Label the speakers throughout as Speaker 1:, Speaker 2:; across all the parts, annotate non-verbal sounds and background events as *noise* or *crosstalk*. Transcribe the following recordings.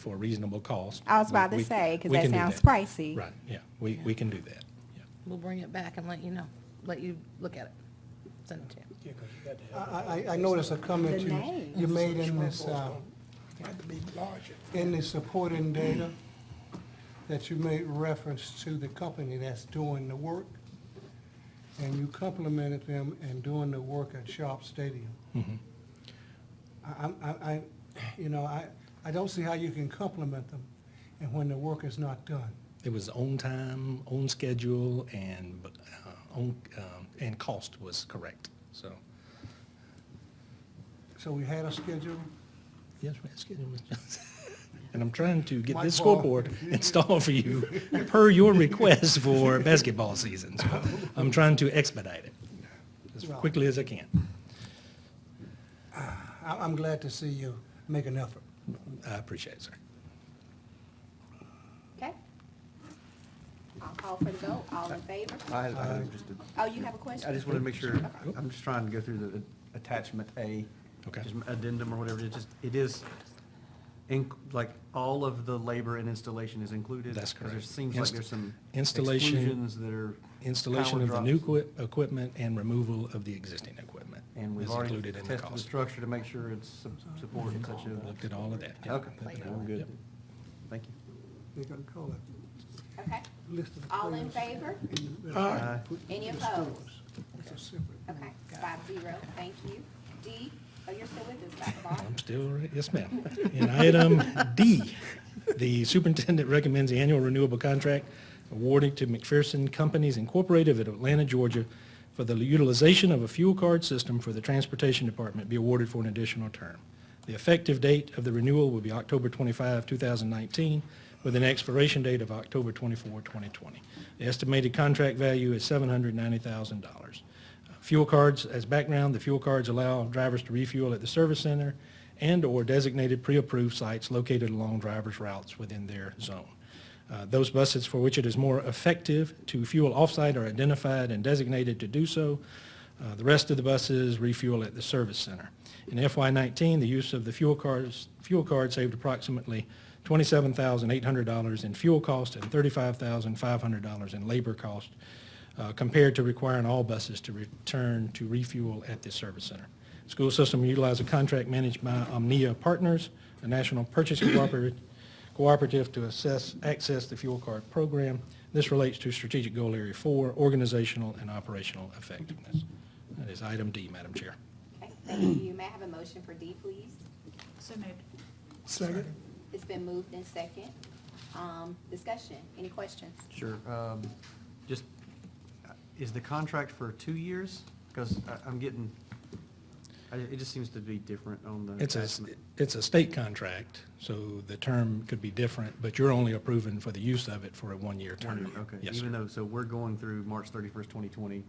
Speaker 1: for a reasonable cost.
Speaker 2: I was about to
Speaker 1: We-
Speaker 2: say, 'cause
Speaker 1: we
Speaker 2: that
Speaker 1: can do
Speaker 2: sounds pricey.
Speaker 1: Right, yeah, we, we can do that, yeah.
Speaker 3: We'll bring it back and let you know, let you look at it, send it to you.
Speaker 4: I, I, I noticed a comment
Speaker 2: The
Speaker 4: you,
Speaker 2: names.
Speaker 4: you made in this, uh, in the supporting data, that you made reference to the company that's doing the work, and you complimented them in doing the work at Sharp Stadium. I, I'm- I, I, you know, I, I don't see how you can compliment them and when the work is not done.
Speaker 1: It was on time, on schedule, and, uh, on, um, and cost was correct, so.
Speaker 4: So we had a schedule,
Speaker 1: Yes, ma'am, excuse me. *laughs* And I'm trying to get
Speaker 4: My
Speaker 1: this
Speaker 4: fault.
Speaker 1: scoreboard installed for you per your request for basketball season. So I'm trying to expedite it as
Speaker 4: Right.
Speaker 1: quickly as I can.
Speaker 4: I, I'm glad to see you make an effort.
Speaker 1: I appreciate it, sir.
Speaker 2: Okay. I'll call for the vote. All in favor?
Speaker 5: I had,
Speaker 1: Uh,
Speaker 5: I had just
Speaker 2: Oh, you have a question?
Speaker 5: a, I just wanted to make sure, I'm just trying to go through the attachment A.
Speaker 1: Okay.
Speaker 5: just Addendum or whatever, it just, it is, in- like, all of the labor and installation is included?
Speaker 1: That's
Speaker 5: 'Cause there
Speaker 1: correct.
Speaker 5: seems like
Speaker 1: Inst-
Speaker 5: there's some
Speaker 1: installation-
Speaker 5: exclusions that are.
Speaker 1: Installation
Speaker 5: power
Speaker 1: of the new
Speaker 5: drops.
Speaker 1: equi- equipment and removal of the existing equipment
Speaker 5: And we've
Speaker 1: is
Speaker 5: already
Speaker 1: included in the
Speaker 5: tested the
Speaker 1: cost.
Speaker 5: structure to make sure it's su- supported such
Speaker 1: Looked
Speaker 5: a.
Speaker 1: at all of that. yeah.
Speaker 5: Okay,
Speaker 1: Looked at all-
Speaker 5: I'm good.
Speaker 1: yep.
Speaker 5: Thank you.
Speaker 4: They gotta call
Speaker 2: Okay.
Speaker 4: it, list of the
Speaker 2: All in
Speaker 4: players.
Speaker 2: favor?
Speaker 5: Aye.
Speaker 2: Any
Speaker 4: It's
Speaker 2: opposed?
Speaker 4: schools. It's a separate.
Speaker 2: Okay, five zero. Thank you. D, oh, you're still with us, Dr. Barr?
Speaker 1: I'm still, right. yes, ma'am. In item D, the superintendent recommends the annual renewable contract awarded to McPherson Companies Incorporated of Atlanta, Georgia for the utilization of a fuel card system for the Transportation Department be awarded for an additional term. The effective date of the renewal will be October 25, 2019, with an expiration date of October 24, 2020. The estimated contract value is $790,000. Fuel cards, as background, the fuel cards allow drivers to refuel at the service center and/or designated pre-approved sites located along drivers' routes within their zone. Uh, Those buses for which it is more effective to fuel off-site are identified and designated to do so. Uh, The rest of the buses refuel at the service center. In FY19, the use of the fuel cards, fuel card saved approximately $27,800 in fuel cost and $35,500 in labor cost uh, compared to requiring all buses to return to refuel at the service center. School system utilized a contract managed by Omnia Partners, a national purchase cooperative, cooperative to assess, access the fuel card program. This relates to strategic goal area four, organizational and operational effectiveness. That is item D, Madam Chair.
Speaker 2: Okay, thank you. May I have a motion for D, please?
Speaker 6: So moved.
Speaker 4: Second.
Speaker 2: It's been moved in second. Um, discussion, any questions?
Speaker 5: Sure. um, Just, uh, is the contract for two years? Because I'm getting, I- it just seems to be different on the
Speaker 1: It's a,
Speaker 5: attachment.
Speaker 1: it's a state contract, so the term could be different, but you're only approving for the use of it for a one-year
Speaker 5: One
Speaker 1: term.
Speaker 5: year, Okay,
Speaker 1: Yes,
Speaker 5: even
Speaker 1: sir.
Speaker 5: though, so we're going through March 31st, 2020.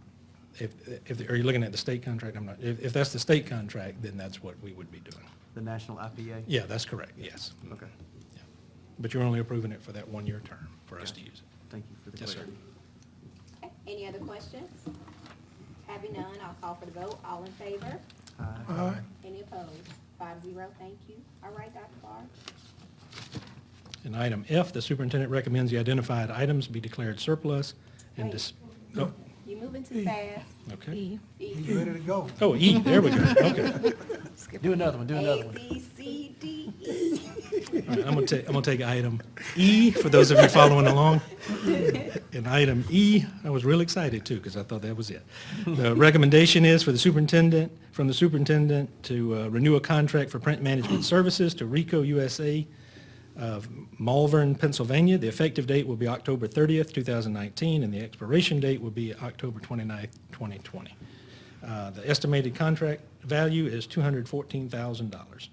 Speaker 1: If, if, are you looking at the state contract? I'm not, if, if that's the state contract, then that's what we would be doing.
Speaker 5: The national IPA?
Speaker 1: Yeah, that's correct, yes.
Speaker 5: Okay.
Speaker 1: Yeah. But you're only approving it for that one-year term for us to
Speaker 5: Gotcha.
Speaker 1: use it.
Speaker 5: Thank you for the
Speaker 1: Yes, sir.
Speaker 5: clarity.
Speaker 2: Okay, any other questions? Having none, I'll call for the vote. All in favor?
Speaker 5: Aye.
Speaker 2: Any opposed? Five zero, thank you. All right, Dr. Barr?
Speaker 1: In item F, the superintendent recommends the identified items be declared surplus and
Speaker 2: Wait.
Speaker 1: dis, oh,
Speaker 2: You moving too fast.
Speaker 1: okay.
Speaker 3: E,
Speaker 4: He's
Speaker 2: E,
Speaker 4: ready to go.
Speaker 1: Oh, E, there we go, okay.
Speaker 3: skip
Speaker 5: Do another one, do another
Speaker 2: A,
Speaker 5: one.
Speaker 2: B, C, D, E.
Speaker 1: All right, I'm gonna take, I'm gonna take item E, for those of you following along. And item E, I was real excited too, because I thought that was it. The recommendation is for the superintendent, from the superintendent to uh, renew a contract for print management services to Rico USA of Malvern, Pennsylvania. The effective date will be October 30th, 2019, and the expiration date will be October 29th, 2020. Uh, The estimated contract value is $214,000.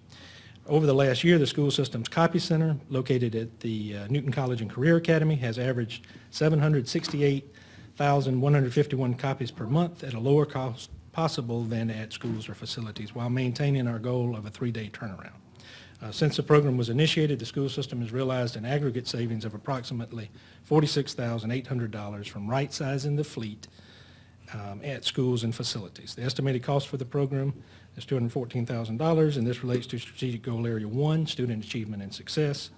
Speaker 1: Over the last year, the school system's copy center, located at the uh, Newton College and Career Academy, has averaged 768,151 copies per month at a lower cost possible than at schools or facilities, while maintaining our goal of a three-day turnaround. Uh, Since the program was initiated, the school system has realized an aggregate savings of approximately $46,800 from right-sizing the fleet um, at schools and facilities. The estimated cost for the program is $214,000, and this relates to Strategic Goal Area 1, Student Achievement and Success.